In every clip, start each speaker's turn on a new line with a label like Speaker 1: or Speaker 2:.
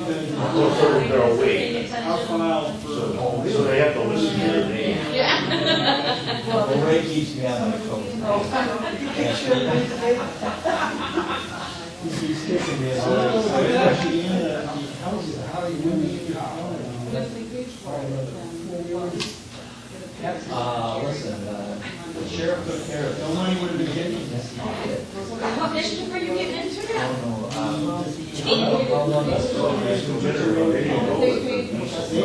Speaker 1: Well, so they're awake,
Speaker 2: I'll come out for a whole.
Speaker 1: so they have to listen to their name.
Speaker 3: Well, Ray keeps me on my toes. He's kicking me in the legs. Uh, listen, uh, the sheriff took care of it.
Speaker 2: No money would have been getting this.
Speaker 4: What mission were you getting into
Speaker 3: I
Speaker 4: now?
Speaker 3: don't know, um, I don't know, no, that's all
Speaker 2: They
Speaker 3: right.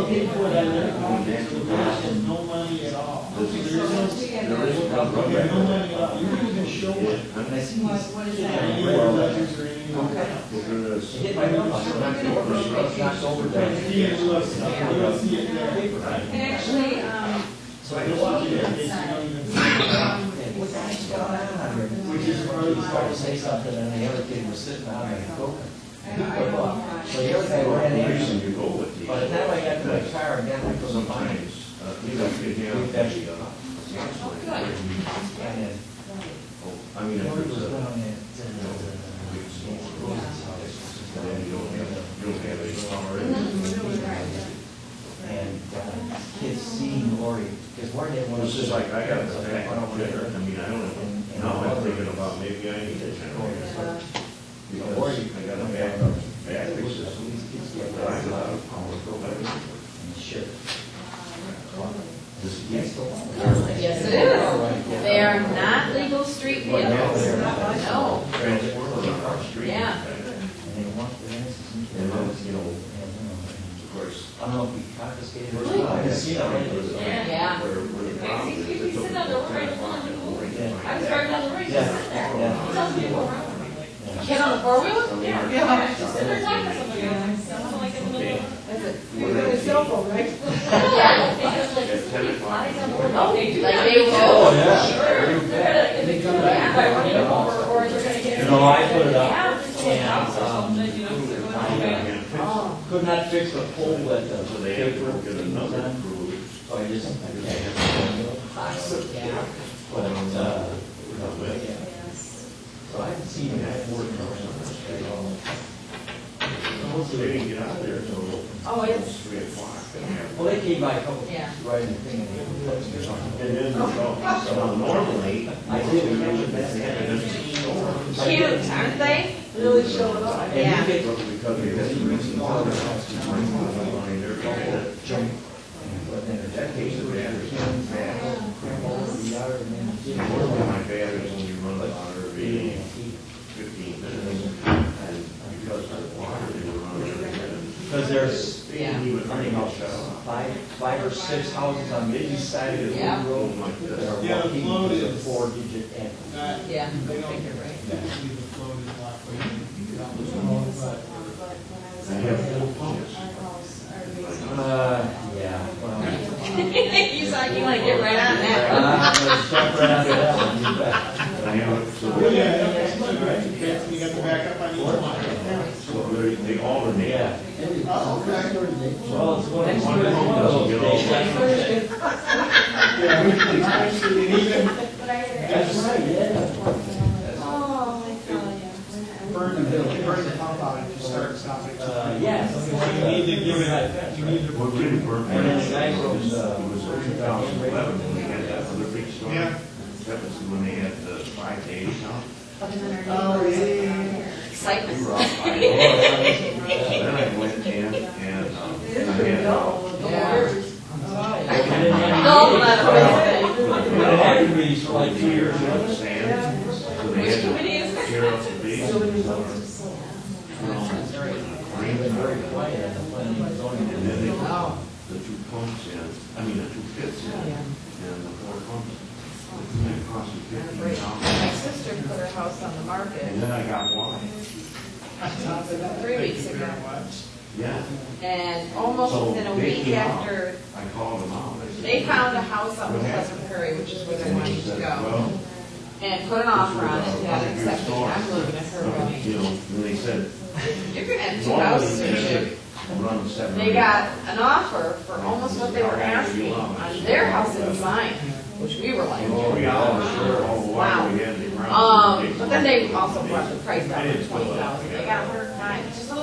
Speaker 2: paid for it out of their pockets, but there is no money at all. There is no, there is no money at all. You can even show it.
Speaker 3: When I see
Speaker 2: And
Speaker 3: these-
Speaker 2: you were ledgers or anything.
Speaker 3: it hit my mailbox, and I feel it, it's knocked over there.
Speaker 2: See it, look, you don't see it there.
Speaker 4: And actually, um,
Speaker 3: So I
Speaker 2: You'll
Speaker 3: go out
Speaker 2: walk in there,
Speaker 3: there, and
Speaker 2: you don't even see
Speaker 3: what's actually going on here?
Speaker 2: Which is part
Speaker 3: He
Speaker 2: of the
Speaker 3: started to say something, and the other kid was sitting on it, go. He put up. So the other guy ran in,
Speaker 1: Reason you go with these.
Speaker 3: by the time I got to my car, and then I was behind him.
Speaker 1: Sometimes, uh, you don't get
Speaker 3: We've actually
Speaker 1: him,
Speaker 3: got
Speaker 1: uh,
Speaker 3: up. And then,
Speaker 1: I mean,
Speaker 3: you
Speaker 1: if
Speaker 3: know, he
Speaker 1: it's
Speaker 3: was
Speaker 1: a,
Speaker 3: down there.
Speaker 1: then you don't have, you don't have any power.
Speaker 3: And uh, kids seeing Lori, because one day one
Speaker 1: Well,
Speaker 3: of
Speaker 1: It's just
Speaker 3: those.
Speaker 1: like, I got the back on dinner, I mean, I don't, know. now I'm thinking about maybe I need a generator. Because I got a back, back fix system. but I have a lot of power to go back.
Speaker 3: Sure.
Speaker 1: This is-
Speaker 3: Yes, the one.
Speaker 4: Yes, it is. They are not legal street vehicles. No.
Speaker 1: Transformer on our street.
Speaker 4: Yeah.
Speaker 3: And they want the answers.
Speaker 1: And then, you know,
Speaker 3: I
Speaker 1: of course,
Speaker 3: don't know if we confiscated or
Speaker 1: first
Speaker 3: not.
Speaker 1: time I
Speaker 3: I've
Speaker 1: seen it, it
Speaker 3: seen it.
Speaker 1: was, uh,
Speaker 4: Yeah.
Speaker 1: where- where the problem is,
Speaker 4: Excuse me,
Speaker 1: it took
Speaker 4: sit down, don't worry.
Speaker 1: 10 o'clock in the morning to find
Speaker 4: I was
Speaker 1: out.
Speaker 4: driving down the road, just sitting there.
Speaker 3: Yeah.
Speaker 4: Tells me to go around. Get on a four wheel? Yeah. Just sit there talking to somebody. I'm like in the middle of-
Speaker 1: At ten o'clock in the morning.
Speaker 4: Oh, they do. Like they
Speaker 3: Oh,
Speaker 4: will.
Speaker 3: yeah.
Speaker 4: They're gonna- Yeah, by running them over, or they're gonna get.
Speaker 3: You know, I put it up
Speaker 4: Yeah, it's like a house or something, you know, it's going on.
Speaker 1: Yeah.
Speaker 4: Oh,
Speaker 3: Could not fix the pole that the
Speaker 1: So they had to
Speaker 3: paper.
Speaker 1: go get another crew.
Speaker 3: So I just, I just had to. But, uh, yeah.
Speaker 4: yes.
Speaker 3: So I haven't seen that word in a while.
Speaker 1: They didn't get out there till
Speaker 4: Oh, it's,
Speaker 1: three o'clock.
Speaker 3: Well, they came by a couple, right
Speaker 4: Yeah.
Speaker 3: in the thing. and they put it on.
Speaker 1: And then, so, so normally,
Speaker 3: I did, we went back
Speaker 1: they had
Speaker 3: there.
Speaker 1: an empty store.
Speaker 4: cute, aren't they? Really showing off. Yeah.
Speaker 3: And you get
Speaker 1: But because they had to use the water, to bring the line there, couple of
Speaker 3: junk. But then in that case,
Speaker 1: cases of
Speaker 3: we had
Speaker 1: batteries,
Speaker 3: to
Speaker 1: man.
Speaker 3: cram over the yard and then get it
Speaker 1: One of
Speaker 3: over.
Speaker 1: my batteries when you run the water every
Speaker 3: And
Speaker 1: day,
Speaker 3: he-
Speaker 1: fifteen minutes, and because of the water, they were running. and-
Speaker 3: Because there's
Speaker 1: They didn't even running out.
Speaker 3: five, five or six houses on the east side of the
Speaker 4: Yeah.
Speaker 3: road
Speaker 1: Like
Speaker 3: that
Speaker 1: this.
Speaker 3: are
Speaker 2: Yeah, the
Speaker 3: walking
Speaker 2: flow
Speaker 3: with a
Speaker 2: is- Uh,
Speaker 3: four-digit end.
Speaker 2: Not-
Speaker 4: Yeah.
Speaker 2: They don't,
Speaker 4: You're right.
Speaker 2: usually the flow is locked, but you can get out the wrong side.
Speaker 1: I have four pumps.
Speaker 3: Uh, yeah, well.
Speaker 4: He's like, you wanna get right on that.
Speaker 3: I'm gonna step right out of that one, you
Speaker 1: I
Speaker 3: bet.
Speaker 1: have, so.
Speaker 2: Well, yeah, that's good, right? You got- You got to back up on each one.
Speaker 1: So they, they alternate.
Speaker 3: Yeah.
Speaker 2: Oh, okay.
Speaker 3: Well, it's one of
Speaker 1: One of them doesn't get all
Speaker 3: those days.
Speaker 2: Yeah, we can actually- and even
Speaker 3: That's right, yeah.
Speaker 4: Oh, my God,
Speaker 2: burn the, burn the pump out if you start stopping.
Speaker 3: Uh, yeah.
Speaker 2: So You need to give it, you need to.
Speaker 1: What really burnt me
Speaker 3: And then the guy
Speaker 1: out
Speaker 3: goes, uh,
Speaker 1: was two thousand eleven, when we had that other big storm.
Speaker 2: Yeah.
Speaker 1: That was when they had the five days out.
Speaker 2: Oh, yeah.
Speaker 1: We
Speaker 4: Excitement.
Speaker 1: were out five
Speaker 3: Oh,
Speaker 1: days.
Speaker 3: yeah.
Speaker 1: Then I went in and, um, and I had, uh,
Speaker 4: Yeah.
Speaker 3: I didn't have-
Speaker 4: No, that's what I said.
Speaker 3: It happened to me for like two years.
Speaker 1: of sand, so they
Speaker 4: Which
Speaker 1: had
Speaker 4: committee
Speaker 1: to
Speaker 4: is that?
Speaker 1: tear up the base. uh,
Speaker 3: It was very quiet at the planning and zoning.
Speaker 1: And then they put the two pumps in, I mean, the two pits in, and the four pumps. And it cost me fifteen
Speaker 4: My
Speaker 1: dollars.
Speaker 4: sister put her house on the
Speaker 1: And
Speaker 4: market
Speaker 1: then I got water.
Speaker 4: three weeks ago,
Speaker 1: Yeah,
Speaker 4: and almost within a week after,
Speaker 1: I called them out. I said-
Speaker 4: they found a house on Pleasant Prairie, which is where they
Speaker 1: And he
Speaker 4: wanted to
Speaker 1: said,
Speaker 4: go,
Speaker 1: well,
Speaker 4: and put an offer on it, got accepted, I'm living at her
Speaker 1: you
Speaker 4: building.
Speaker 1: know, and they said,
Speaker 4: You're gonna have two
Speaker 1: normally
Speaker 4: houses
Speaker 1: they
Speaker 4: in here.
Speaker 1: should run seven.
Speaker 4: They got an offer for almost what they were asking on their house in mine, which we were like,
Speaker 1: Three hours for all the water we had in the ground.
Speaker 4: um, but then they also brought the price down to twenty thousand, they got a hundred and nine, just